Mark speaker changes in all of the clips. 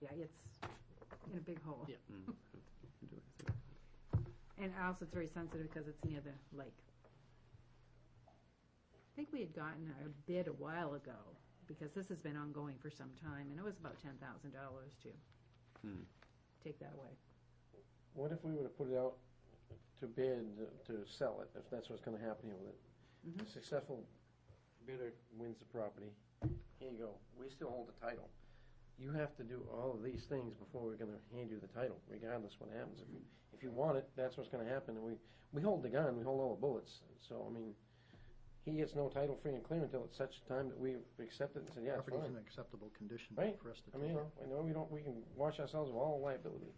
Speaker 1: yeah, it's in a big hole.
Speaker 2: Yeah.
Speaker 3: Mm.
Speaker 1: And also, it's very sensitive because it's near the lake. I think we had gotten a bid a while ago, because this has been ongoing for some time, and it was about ten thousand dollars to
Speaker 3: Hmm.
Speaker 1: take that away.
Speaker 4: What if we were to put it out to bid to sell it, if that's what's gonna happen here with it?
Speaker 1: Mhm.
Speaker 4: The Successful bidder wins the property. Here you go. We still hold the title. You have to do all of these things before we're gonna hand you the title, regardless what happens. If you, if you want it, that's what's gonna happen. And we, we hold the gun, we hold all the bullets. So, I mean, he gets no title free and clear until it's such time that we've accepted and said, yeah, it's
Speaker 2: Property's in
Speaker 4: fine.
Speaker 2: acceptable condition
Speaker 4: Right.
Speaker 2: for us to
Speaker 4: I
Speaker 2: take.
Speaker 4: mean, you know, I know we don't, we can wash ourselves of all liability.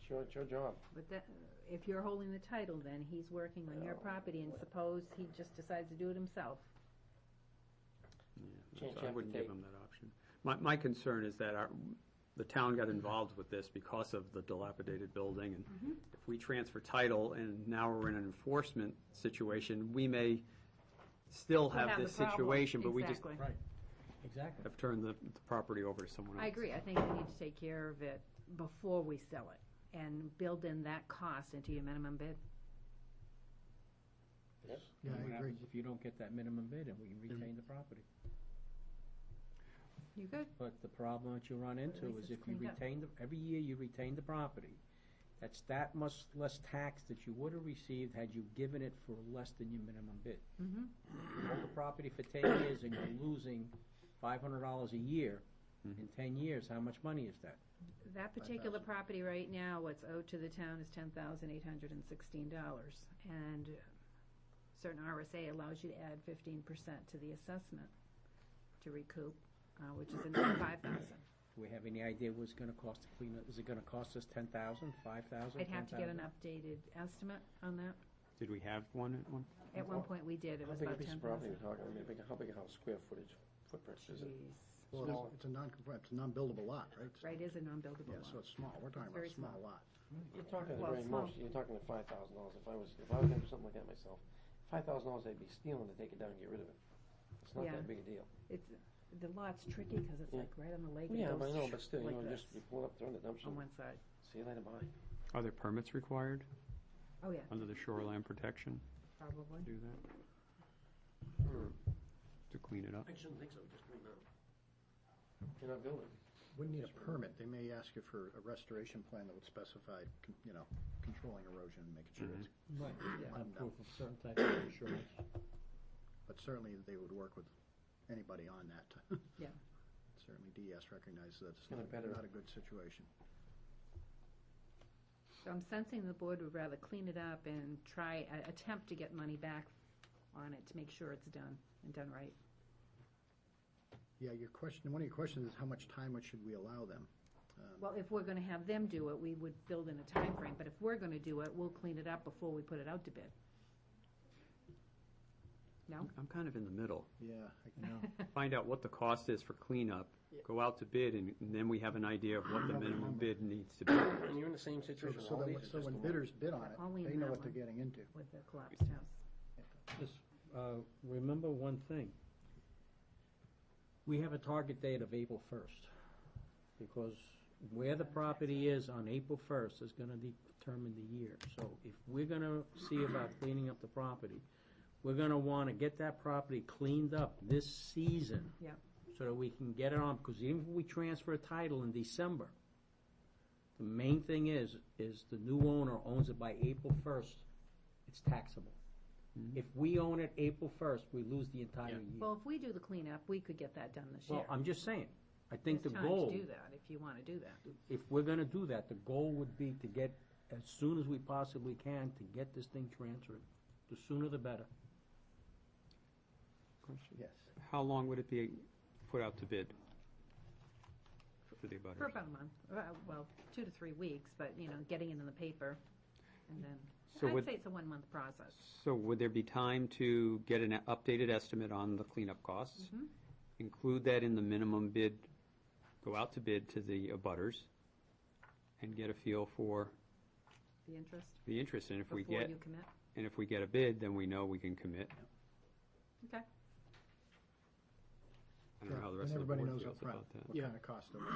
Speaker 4: It's your, it's your job.
Speaker 1: But that, if you're holding the title, then he's working on your property, and suppose he just decides to do it himself.
Speaker 3: Yeah,
Speaker 4: Change
Speaker 3: so I
Speaker 4: chapter
Speaker 3: wouldn't give
Speaker 4: date.
Speaker 3: them that option. My, my concern is that our, the town got involved with this because of the dilapidated building,
Speaker 1: Mm-hmm.
Speaker 3: and if we transfer title and now we're in an enforcement situation, we may still
Speaker 1: We'll
Speaker 3: have
Speaker 1: have
Speaker 3: this
Speaker 1: the problem.
Speaker 3: situation, but we just
Speaker 1: Exactly.
Speaker 2: Right, exactly.
Speaker 3: have turned the the property over to someone else.
Speaker 1: I agree, I think we need to take care of it before we sell it, and build in that cost into your minimum bid.
Speaker 2: Yeah,
Speaker 5: And
Speaker 2: I
Speaker 5: What
Speaker 2: agree.
Speaker 5: happens if you don't get that minimum bid and we retain the property?
Speaker 1: You good?
Speaker 5: But the problem that you run
Speaker 1: least
Speaker 5: into is
Speaker 1: it's
Speaker 5: if you
Speaker 1: cleaned up.
Speaker 5: retain the, every year you retain the property, that's that much less tax that you would have received had you given it for less than your minimum bid.
Speaker 1: Mhm.
Speaker 5: You Hold the property for ten years and you're losing five hundred dollars a year.
Speaker 4: Mm-hmm.
Speaker 5: In ten years, how much money is that?
Speaker 1: That particular property right now, what's owed to the town is ten thousand eight hundred and sixteen dollars. And certain RSA allows you to add fifteen percent to the assessment to recoup, uh, which is another five thousand.
Speaker 5: Do we have any idea what it's gonna cost to clean it? Is it gonna cost us ten thousand, five thousand?
Speaker 1: I'd have to get an updated estimate on that.
Speaker 3: Did we have one at one?
Speaker 1: At one point, we did, it
Speaker 4: How
Speaker 1: was
Speaker 4: big a
Speaker 1: about
Speaker 4: piece
Speaker 1: ten
Speaker 4: of property
Speaker 1: thousand.
Speaker 4: we're talking, I mean, big- how big a house, square footage, footprint is it?
Speaker 2: Well,
Speaker 4: Smaller.
Speaker 2: it's- it's a non, it's a non-buildable lot, right?
Speaker 1: Right, is a non-buildable
Speaker 2: Yeah,
Speaker 1: lot.
Speaker 2: so it's small, we're talking about
Speaker 1: very
Speaker 2: a small
Speaker 1: small.
Speaker 2: lot.
Speaker 4: You're talking the
Speaker 1: Well,
Speaker 4: very
Speaker 1: small.
Speaker 4: most, you're talking the five thousand dollars, if I was, if I was gonna do something like that myself, five thousand dollars, I'd be stealing to take it down and get rid of it. It's not
Speaker 1: Yeah.
Speaker 4: that big a deal.
Speaker 1: It's, the lot's tricky because it's
Speaker 4: Yeah.
Speaker 1: like right on the lake. and
Speaker 4: Yeah, but I
Speaker 1: goes
Speaker 4: know, but still, you
Speaker 1: like
Speaker 4: know, just,
Speaker 1: this
Speaker 4: you pull it up, throw it in the
Speaker 1: On
Speaker 4: dumpster,
Speaker 1: one side.
Speaker 4: see you later, bye.
Speaker 3: Are there permits required
Speaker 1: Oh, yeah,
Speaker 3: under the shoreline protection
Speaker 1: probably.
Speaker 3: to do that, to clean it up?
Speaker 4: I shouldn't think so, just right now. You're not building.
Speaker 2: Wouldn't need a permit, they may ask you for a restoration plan that would specify, con- you know, controlling erosion and making sure it's,
Speaker 4: Mm-hmm.
Speaker 5: Right,
Speaker 2: yeah.
Speaker 5: I'm proof of certain type of insurance.
Speaker 2: but certainly they would work with anybody on that.
Speaker 1: Yeah.
Speaker 2: Certainly DES recognizes that it's
Speaker 4: Kind
Speaker 2: not,
Speaker 4: of better.
Speaker 2: not a good situation.
Speaker 1: So I'm sensing the board would rather clean it up and try, a- attempt to get money back on it to make sure it's done and done right.
Speaker 2: Yeah, your question, one of your questions is how much time would- should we allow them? Um,
Speaker 1: Well, if we're gonna have them do it, we would build in a time frame. but if we're gonna do it, we'll clean it up before we put it out to bid. No?
Speaker 3: I'm kind of in the middle.
Speaker 2: Yeah, I know.
Speaker 3: find out what the cost is for cleanup, go out to bid, and and then we have an idea of what the minimum bid needs to be.
Speaker 4: And you're in the same
Speaker 2: So
Speaker 4: situation,
Speaker 2: so
Speaker 4: all
Speaker 2: that,
Speaker 4: these are
Speaker 2: so
Speaker 4: just
Speaker 2: when
Speaker 4: the
Speaker 2: bidders bid on
Speaker 1: Only
Speaker 2: it,
Speaker 1: in
Speaker 2: they know
Speaker 1: that
Speaker 2: what they're
Speaker 1: one.
Speaker 2: getting into.
Speaker 1: With the collapsed house.
Speaker 5: Just, uh, remember one thing. We have a target date of April first, because where the property is on April first is gonna determine the year. So if we're gonna see about cleaning up the property, we're gonna wanna get that property cleaned up this season.
Speaker 1: Yep.
Speaker 5: So that we can get it on, because even if we transfer a title in December, the main thing is, is the new owner owns it by April first, it's taxable. If we own it April first, we lose the entire year.
Speaker 1: Well, if we do the cleanup, we could get that done this year.
Speaker 5: Well, I'm just saying, I think the
Speaker 1: There's time
Speaker 5: goal,
Speaker 1: to do that, if you wanna do that.
Speaker 5: if we're gonna do that, the goal would be to get, as soon as we possibly can, to get this thing transferred. The sooner the better.
Speaker 2: Yes.
Speaker 3: How long would it be put out to bid for the
Speaker 1: For
Speaker 3: abutters?
Speaker 1: about a month, Uh, well, two to three weeks, but, you know, getting it in the paper, and then,
Speaker 3: So
Speaker 1: I'd
Speaker 3: would-
Speaker 1: say it's a one-month process.
Speaker 3: So would there be time to get an updated estimate on the cleanup costs?
Speaker 1: Mm-hmm.
Speaker 3: Include that in the minimum bid, go out to bid to the abutters, and get a feel for
Speaker 1: The interest,
Speaker 3: the interest, and if we
Speaker 1: before
Speaker 3: get,
Speaker 1: you commit?
Speaker 3: and if we get a bid, then we know we can commit.
Speaker 1: Okay.
Speaker 3: I don't know how the
Speaker 2: And
Speaker 3: rest of the
Speaker 2: everybody
Speaker 3: board
Speaker 2: knows
Speaker 3: feels
Speaker 2: upfront
Speaker 3: about that.
Speaker 2: What kind of cost it was.